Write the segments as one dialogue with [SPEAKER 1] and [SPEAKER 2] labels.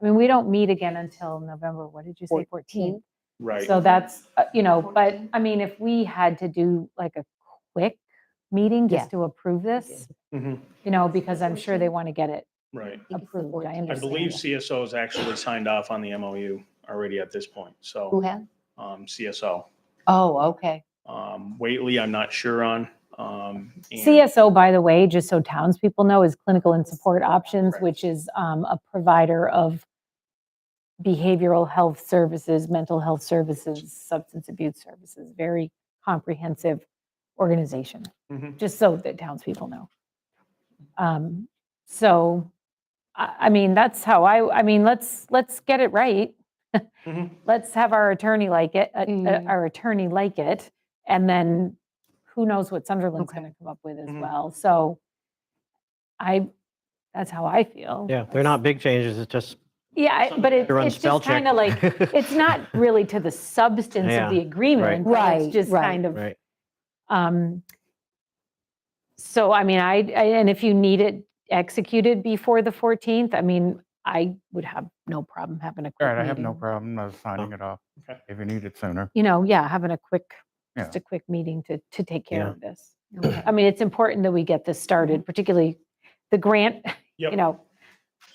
[SPEAKER 1] I mean, we don't meet again until November, what did you say, 14th?
[SPEAKER 2] Right.
[SPEAKER 1] So that's, uh, you know, but
[SPEAKER 3] 14th.
[SPEAKER 1] I mean, if we had to do like a quick meeting
[SPEAKER 4] Yeah.
[SPEAKER 1] just to approve this,
[SPEAKER 2] Mhm,
[SPEAKER 1] you know, because I'm sure they want to get it
[SPEAKER 2] Right.
[SPEAKER 4] think it's the
[SPEAKER 1] approved. I
[SPEAKER 4] 14th.
[SPEAKER 2] I
[SPEAKER 1] understand.
[SPEAKER 2] believe
[SPEAKER 1] that.
[SPEAKER 2] CSO has actually signed off on the MOU already at this point.
[SPEAKER 4] Who
[SPEAKER 2] So
[SPEAKER 4] has?
[SPEAKER 2] um, CSO.
[SPEAKER 4] Oh, okay.
[SPEAKER 2] Um, Whately, I'm not sure on. um, and-
[SPEAKER 1] CSO, by the way, just so townspeople know, is Clinical and Support Options,
[SPEAKER 2] Correct.
[SPEAKER 1] which is um, a provider of behavioral health services, mental health services, substance abuse services, very comprehensive organization,
[SPEAKER 2] Mhm.
[SPEAKER 1] just so that townspeople know. Um, So, I, I mean, that's how I, I mean, let's, let's get it right.
[SPEAKER 2] Mhm.
[SPEAKER 1] Let's have our attorney like it, uh, uh,
[SPEAKER 4] Mm.
[SPEAKER 1] our attorney like it, and then who knows what Sunderland's
[SPEAKER 4] Okay. Mm-hmm.
[SPEAKER 1] going to come up with as
[SPEAKER 2] Mhm.
[SPEAKER 1] well. So I, that's how I feel.
[SPEAKER 5] Yeah, they're not big changes, it's just
[SPEAKER 1] Yeah, I- but it-
[SPEAKER 5] to run
[SPEAKER 1] it's
[SPEAKER 5] spell
[SPEAKER 1] just
[SPEAKER 5] check.
[SPEAKER 1] kind of like, it's not really to the substance
[SPEAKER 5] Yeah,
[SPEAKER 1] of the agreement. but
[SPEAKER 4] Right,
[SPEAKER 1] It's just
[SPEAKER 4] right.
[SPEAKER 1] kind of,
[SPEAKER 5] Right,
[SPEAKER 1] um, so I mean, I, I- and if you need it executed before the 14th, I mean, I would have no problem having a quick
[SPEAKER 6] All right, I have no
[SPEAKER 1] meeting.
[SPEAKER 6] problem of signing it off
[SPEAKER 2] Okay.
[SPEAKER 6] if you need it sooner.
[SPEAKER 1] you know, yeah, having a quick,
[SPEAKER 6] Yeah.
[SPEAKER 1] just a quick meeting to, to take care
[SPEAKER 5] Yeah.
[SPEAKER 1] of this. I mean, it's important that we get this started, particularly the grant, you
[SPEAKER 2] Yep.
[SPEAKER 1] know,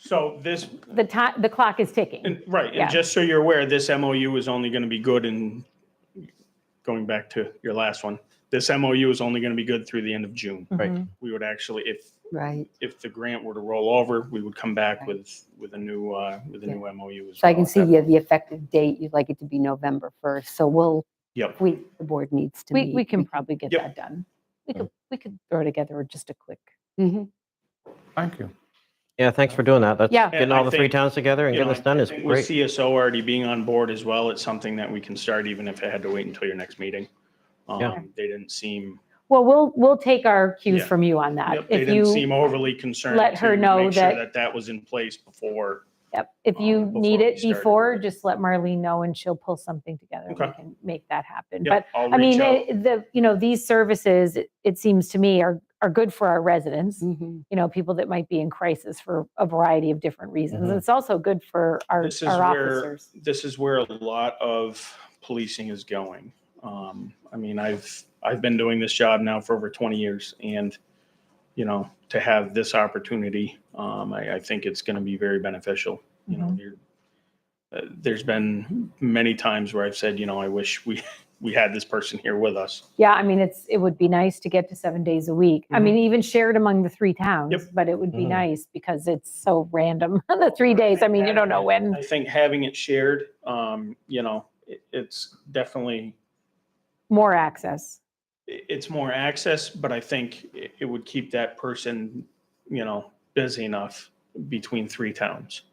[SPEAKER 2] So this,
[SPEAKER 1] the time, the clock is ticking.
[SPEAKER 2] and- right,
[SPEAKER 1] Yeah.
[SPEAKER 2] and just so you're aware, this MOU is only going to be good in, going back to your last one, this MOU is only going to be good through the end of
[SPEAKER 4] Hmm.
[SPEAKER 2] June.
[SPEAKER 5] Right.
[SPEAKER 1] Mhm.
[SPEAKER 2] We would actually, if,
[SPEAKER 4] Right.
[SPEAKER 2] if the grant were to roll over, we would come back
[SPEAKER 4] Right.
[SPEAKER 2] with, with a new, uh, with a
[SPEAKER 4] Yeah.
[SPEAKER 2] new MOU as well.
[SPEAKER 4] So I can
[SPEAKER 2] at
[SPEAKER 4] see
[SPEAKER 2] that
[SPEAKER 4] you have the effective date. You'd like it to be November 1st. So we'll,
[SPEAKER 2] Yep.
[SPEAKER 4] if we, the board needs to
[SPEAKER 1] We,
[SPEAKER 4] meet.
[SPEAKER 1] we can probably get
[SPEAKER 2] Yep.
[SPEAKER 1] that done. We could, we could throw together just a quick,
[SPEAKER 4] Mhm.
[SPEAKER 6] Thank you.
[SPEAKER 5] yeah, thanks for doing that, that's
[SPEAKER 1] yeah,
[SPEAKER 5] getting
[SPEAKER 2] Yeah, I
[SPEAKER 5] all the three
[SPEAKER 2] think,
[SPEAKER 5] towns together and
[SPEAKER 2] You know,
[SPEAKER 5] getting this done
[SPEAKER 2] I
[SPEAKER 5] is
[SPEAKER 2] think With
[SPEAKER 5] great.
[SPEAKER 2] CSO already being on board as well, it's something that we can start even if it had to wait until your next meeting.
[SPEAKER 5] Yeah.
[SPEAKER 2] Um, They didn't seem,
[SPEAKER 1] well, we'll, we'll take our cues
[SPEAKER 2] Yeah.
[SPEAKER 1] from you on that.
[SPEAKER 2] yep, they
[SPEAKER 1] Uh, If
[SPEAKER 2] didn't
[SPEAKER 1] you,
[SPEAKER 2] seem overly concerned.
[SPEAKER 1] let her
[SPEAKER 2] to
[SPEAKER 1] know
[SPEAKER 2] make sure
[SPEAKER 1] that-
[SPEAKER 2] That that was in place before.
[SPEAKER 1] yep, if
[SPEAKER 2] um,
[SPEAKER 1] you
[SPEAKER 2] before
[SPEAKER 1] need
[SPEAKER 2] we
[SPEAKER 1] it
[SPEAKER 2] started.
[SPEAKER 1] before, just let Marlene know and she'll pull something together. and We
[SPEAKER 2] Okay.
[SPEAKER 1] can make that happen.
[SPEAKER 2] Yep,
[SPEAKER 1] But
[SPEAKER 2] I'll
[SPEAKER 1] I mean,
[SPEAKER 2] reach out.
[SPEAKER 1] it- the, you know, these services, it- it seems to me, are, are good for our residents,
[SPEAKER 2] Mm-hmm.
[SPEAKER 4] Mhm.
[SPEAKER 1] you know, people that might be in crisis for a variety of different reasons.
[SPEAKER 5] Mhm.
[SPEAKER 1] It's also good for our,
[SPEAKER 2] Mm-hmm. This is
[SPEAKER 1] our
[SPEAKER 2] where-
[SPEAKER 1] officers.
[SPEAKER 2] this is where a lot of policing is going. Um, I mean, I've I've been doing this job now for over 20 years, and you know, to have this opportunity, um, I, I think it's going to be very beneficial. You
[SPEAKER 1] Mm-hmm.
[SPEAKER 2] know, you're, uh, there's been many times where I've said, you know, I wish we we had this person here with us.
[SPEAKER 1] Yeah, I mean, it's, it would be nice to get to seven days a week. I
[SPEAKER 2] Mhm.
[SPEAKER 1] mean, even shared among the three towns, but it would be
[SPEAKER 5] Mhm.
[SPEAKER 2] Mm-hmm.
[SPEAKER 1] nice because it's so random, the three days. I mean, you don't know when.
[SPEAKER 2] I think having it shared, um, you know, it, it's definitely
[SPEAKER 1] More access.
[SPEAKER 2] i- it's more access, but I think i- it would keep that person, you know, busy enough between three towns.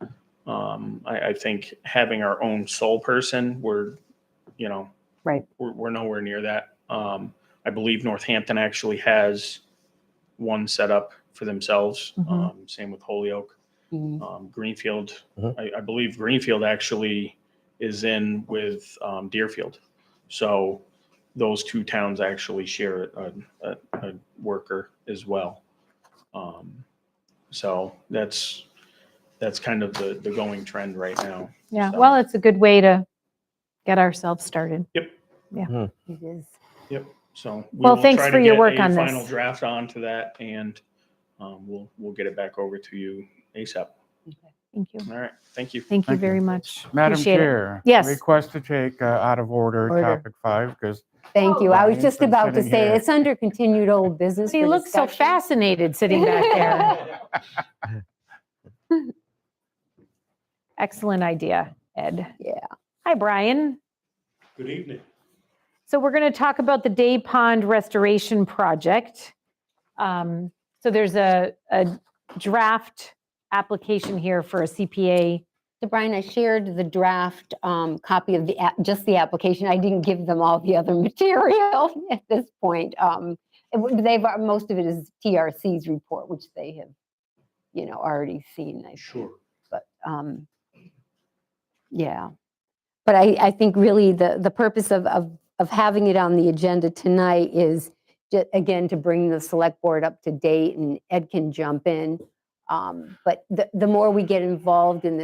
[SPEAKER 2] Um, I, I think having our own sole person, we're, you know,
[SPEAKER 1] Right.
[SPEAKER 2] We're, we're nowhere near that. Um, I believe Northampton actually has one set up for themselves.
[SPEAKER 1] Mhm.
[SPEAKER 2] Um, same with Holyoke,
[SPEAKER 4] Mhm.
[SPEAKER 2] um, Greenfield.
[SPEAKER 5] Mhm.
[SPEAKER 2] I, I believe Greenfield actually is in with um, Deerfield. So those two towns actually share a, a, a worker as well. Um, so that's, that's kind of the, the going trend right now.
[SPEAKER 1] Yeah,
[SPEAKER 2] So-
[SPEAKER 1] well, it's a good way to get ourselves started.
[SPEAKER 4] It is.
[SPEAKER 2] So. we
[SPEAKER 1] Well,
[SPEAKER 2] will
[SPEAKER 1] thanks
[SPEAKER 2] try
[SPEAKER 1] for
[SPEAKER 2] to
[SPEAKER 1] your
[SPEAKER 2] get
[SPEAKER 1] work
[SPEAKER 2] a
[SPEAKER 1] on this.
[SPEAKER 2] Final draft onto that and, um, we'll, we'll get it back over to you ASAP.
[SPEAKER 1] Thank you.
[SPEAKER 2] All right. Thank you.
[SPEAKER 1] Thank you
[SPEAKER 6] Thank you.
[SPEAKER 1] very much.
[SPEAKER 6] Madam
[SPEAKER 1] Appreciate it.
[SPEAKER 6] Chair.
[SPEAKER 1] Yes.
[SPEAKER 6] Request to take uh, out of order
[SPEAKER 4] Order.
[SPEAKER 6] topic five because
[SPEAKER 4] Thank you. I was
[SPEAKER 2] Oh.
[SPEAKER 6] Brian's
[SPEAKER 4] just
[SPEAKER 6] been
[SPEAKER 4] about to
[SPEAKER 6] sitting
[SPEAKER 4] say,
[SPEAKER 6] here.
[SPEAKER 4] it's under continued old business.
[SPEAKER 1] He
[SPEAKER 4] for
[SPEAKER 1] looks so
[SPEAKER 4] discussion.
[SPEAKER 1] fascinated sitting back there. Excellent idea, Ed.
[SPEAKER 4] Yeah.
[SPEAKER 1] Hi, Brian.
[SPEAKER 2] Good evening.
[SPEAKER 1] So we're going to talk about the Day Pond Restoration Project. Um, So there's a, a draft application here for a CPA.
[SPEAKER 4] So Brian, I shared the draft um, copy of the, app- just the application. I didn't give them all the other material at this point. Um, it would- They've, uh, most of it is TRC's report, which they have, you know, already seen, I think.
[SPEAKER 2] Sure.
[SPEAKER 4] but, um, yeah. But I, I think really the, the purpose of, of, of having it on the agenda tonight is, ju- again, to bring the select board up to date, and Ed can jump in. Um, But the, the more we get involved in this.